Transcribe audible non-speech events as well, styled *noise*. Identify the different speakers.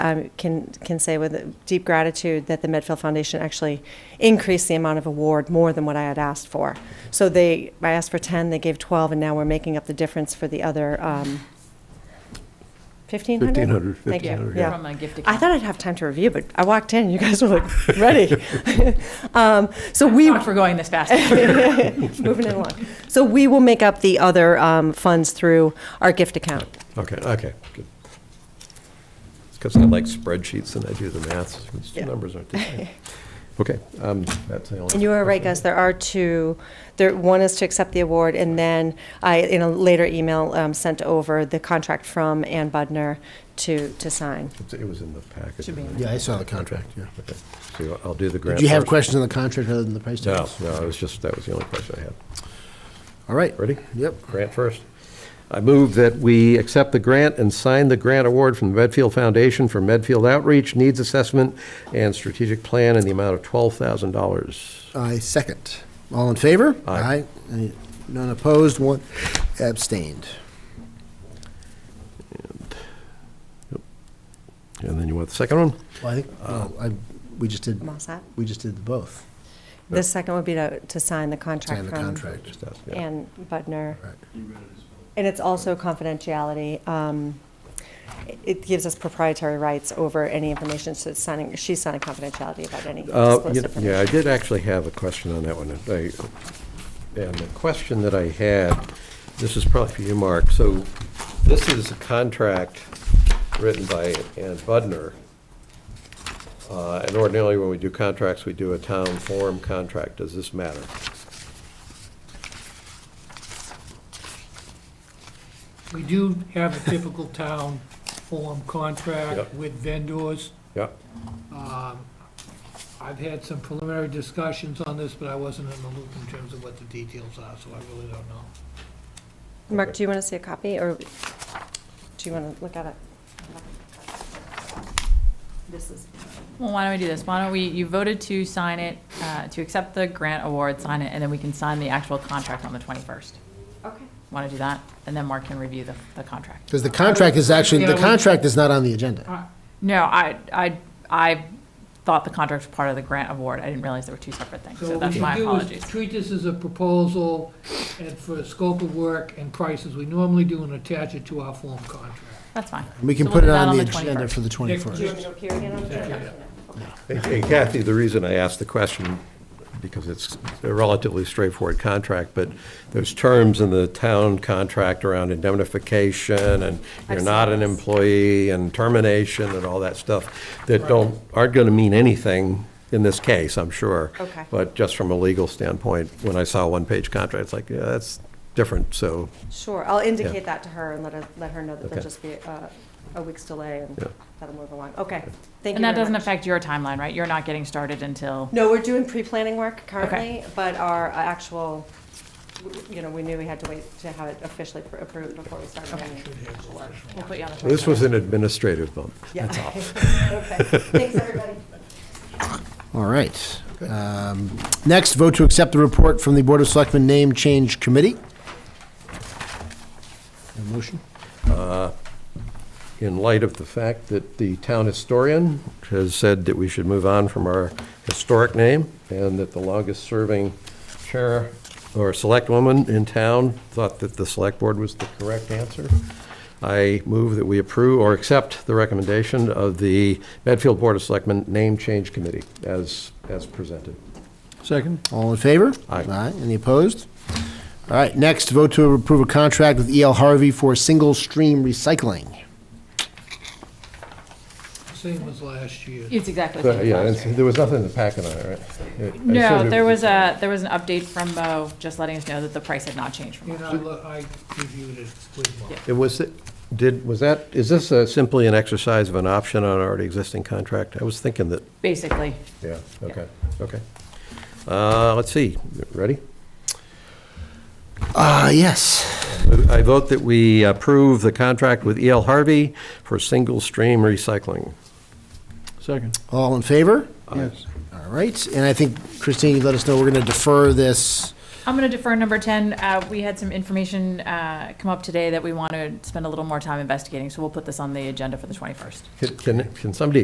Speaker 1: um, can can say with deep gratitude that the Medfield Foundation actually increased the amount of award more than what I had asked for. So they, I asked for 10, they gave 12, and now we're making up the difference for the other um, 1,500?
Speaker 2: 1,500,
Speaker 1: Thank you,
Speaker 2: 1,500, yeah.
Speaker 1: yeah.
Speaker 3: From a gift
Speaker 1: I
Speaker 3: account.
Speaker 1: thought I'd have time to review, but I walked in, you guys were like, ready. *laughs* Um, So we,
Speaker 3: Sorry for going this fast. *laughs*
Speaker 1: moving it along. So we will make up the other um, funds through our gift account.
Speaker 2: Okay, okay, good. It's because I like spreadsheets and I do the math, since the
Speaker 1: Yeah.
Speaker 2: numbers aren't
Speaker 1: *laughs*
Speaker 2: the same. Okay, um, that's the only.
Speaker 1: And you are right,
Speaker 2: question.
Speaker 1: Gus, there are two, there, one is to accept the award, and then I, in a later email, um, sent over the contract from Ann Budner to, to sign.
Speaker 2: It's- It was in the packet.
Speaker 3: Should be in
Speaker 2: wasn't it?
Speaker 4: Yeah, I saw the contract, yeah.
Speaker 2: Okay, So I'll do the grant.
Speaker 4: Do you have
Speaker 2: first.
Speaker 4: questions on the contract other than the price
Speaker 2: No,
Speaker 4: tags?
Speaker 2: no, it was just, that was the only question I had.
Speaker 4: All right.
Speaker 2: Ready?
Speaker 4: Yep.
Speaker 2: Grant first. I move that we accept the grant and sign the grant award from the Medfield Foundation for Medfield Outreach, Needs Assessment, and Strategic Plan in the amount of $12,000.
Speaker 4: I second. All in favor?
Speaker 2: Aye.
Speaker 4: Any- None opposed, one abstained.
Speaker 2: And then you want the second one?
Speaker 4: Well, I think, well, I, we just did,
Speaker 1: I'm all set.
Speaker 4: we just did both.
Speaker 1: The second would be to, to sign the contract
Speaker 4: Sign the
Speaker 1: from
Speaker 4: contract.
Speaker 2: Just ask, yeah.
Speaker 1: Ann Budner.
Speaker 4: Right.
Speaker 1: And it's also confidentiality. um, it- It gives us proprietary rights over any information, so it's signing, she's signing confidentiality about any
Speaker 2: Uh,
Speaker 1: disclosed
Speaker 2: you-
Speaker 1: information.
Speaker 2: Yeah, I did actually have a question on that one. and I- And the question that I had, this is probably for you, Mark. So this is a contract written by Ann Budner. Uh, And ordinarily, when we do contracts, we do a town form contract. Does this matter?
Speaker 5: We do have a typical town form contract
Speaker 2: Yep.
Speaker 5: with vendors.
Speaker 2: Yeah,
Speaker 5: Um, I've had some preliminary discussions on this, but I wasn't in the loop in terms of what the details are, so I really don't know.
Speaker 1: Mark, do you want to see a copy, or do you want to look at it? This is.
Speaker 3: Well, why don't we do this? Why don't we, you voted to sign it, uh, to accept the grant award, sign it, and then we can sign the actual contract on the 21st.
Speaker 1: Okay.
Speaker 3: Want to do that? And then Mark can review the, the contract.
Speaker 4: Because the contract is actually,
Speaker 5: Yeah,
Speaker 4: the
Speaker 5: we-
Speaker 4: contract is not on the agenda.
Speaker 5: Uh,
Speaker 3: No, I, I, I thought the contract was part of the grant award. I didn't realize they were two separate things,
Speaker 5: So
Speaker 3: so
Speaker 5: what
Speaker 3: that's
Speaker 5: we
Speaker 3: my
Speaker 5: should do
Speaker 3: apologies.
Speaker 5: is treat this as a proposal and for scope of work and prices, we normally do and attach it to our form contract.
Speaker 3: That's fine.
Speaker 4: We can
Speaker 3: So we'll
Speaker 4: put
Speaker 3: do
Speaker 4: it
Speaker 3: that
Speaker 4: on the agenda
Speaker 3: 21st.
Speaker 4: for the 21st.
Speaker 1: to appear again on
Speaker 5: Yeah.
Speaker 2: And- and Kathy, the reason I asked the question, because it's a relatively straightforward contract, but there's terms in the town contract around indemnification, and you're
Speaker 1: I've
Speaker 2: not
Speaker 1: seen
Speaker 2: an
Speaker 1: this.
Speaker 2: employee, and termination, and all that stuff, that don't, aren't going to mean anything in this case, I'm sure.
Speaker 1: Okay.
Speaker 2: But just from a legal standpoint, when I saw a one-page contract, it's like, yeah, that's different, so,
Speaker 1: Sure, I'll indicate that to her and let her, let her know that
Speaker 2: Okay.
Speaker 1: there'll just be uh, a week's delay and
Speaker 2: Yeah.
Speaker 1: that'll move along. Okay, thank you
Speaker 3: And that
Speaker 1: very
Speaker 3: doesn't
Speaker 1: much.
Speaker 3: affect your timeline, right? You're not getting started until,
Speaker 1: No, we're doing pre-planning work currently, but our actual, you know, we knew we had to wait to have it officially pr- approved before we started. any actual work.
Speaker 3: we'll put you on the 21st.
Speaker 2: this was an administrative bump.
Speaker 1: Yeah. *laughs* Okay, thanks, everybody.
Speaker 4: All right. Um, Next, vote to accept the report from the Board of Selectmen Name Change Committee. A motion?
Speaker 2: in light of the fact that the town historian has said that we should move on from our historic name, and that the longest-serving chair or select woman in town thought that the select board was the correct answer. I move that we approve or accept the recommendation of the Medfield Board of Selectmen Name Change Committee as, as presented.
Speaker 4: Second. All in favor?
Speaker 2: Aye.
Speaker 4: Any opposed? All right, next, vote to approve a contract with E.L. Harvey for single stream recycling.
Speaker 5: Same as last year.
Speaker 3: It's exactly.
Speaker 2: So,
Speaker 3: the same as
Speaker 2: Uh, yeah,
Speaker 3: last
Speaker 2: and
Speaker 3: year.
Speaker 2: there was nothing in the packet on it, right? I- I assumed
Speaker 3: No,
Speaker 2: it
Speaker 3: there was a, there was an update from Mo, just letting us know that the price had not changed from
Speaker 5: And
Speaker 3: last
Speaker 5: I,
Speaker 3: year.
Speaker 5: lo- I reviewed it with Mark.
Speaker 2: It was, did, was that, is this uh, simply an exercise of an option on an already existing contract? I was thinking that,
Speaker 3: Basically,
Speaker 2: yeah, okay, okay. Uh, Let's see, ready?
Speaker 4: Ah, yes.
Speaker 2: I vote that we approve the contract with E.L. Harvey for single-stream recycling.
Speaker 6: Second.
Speaker 4: All in favor?
Speaker 6: Yes.
Speaker 4: All right, and I think, Christine, you let us know we're going to defer this
Speaker 3: I'm going to defer number 10. Uh, We had some information uh, come up today that we want to spend a little more time investigating, so we'll put this on the agenda for the 21st.
Speaker 2: Can- Can, can somebody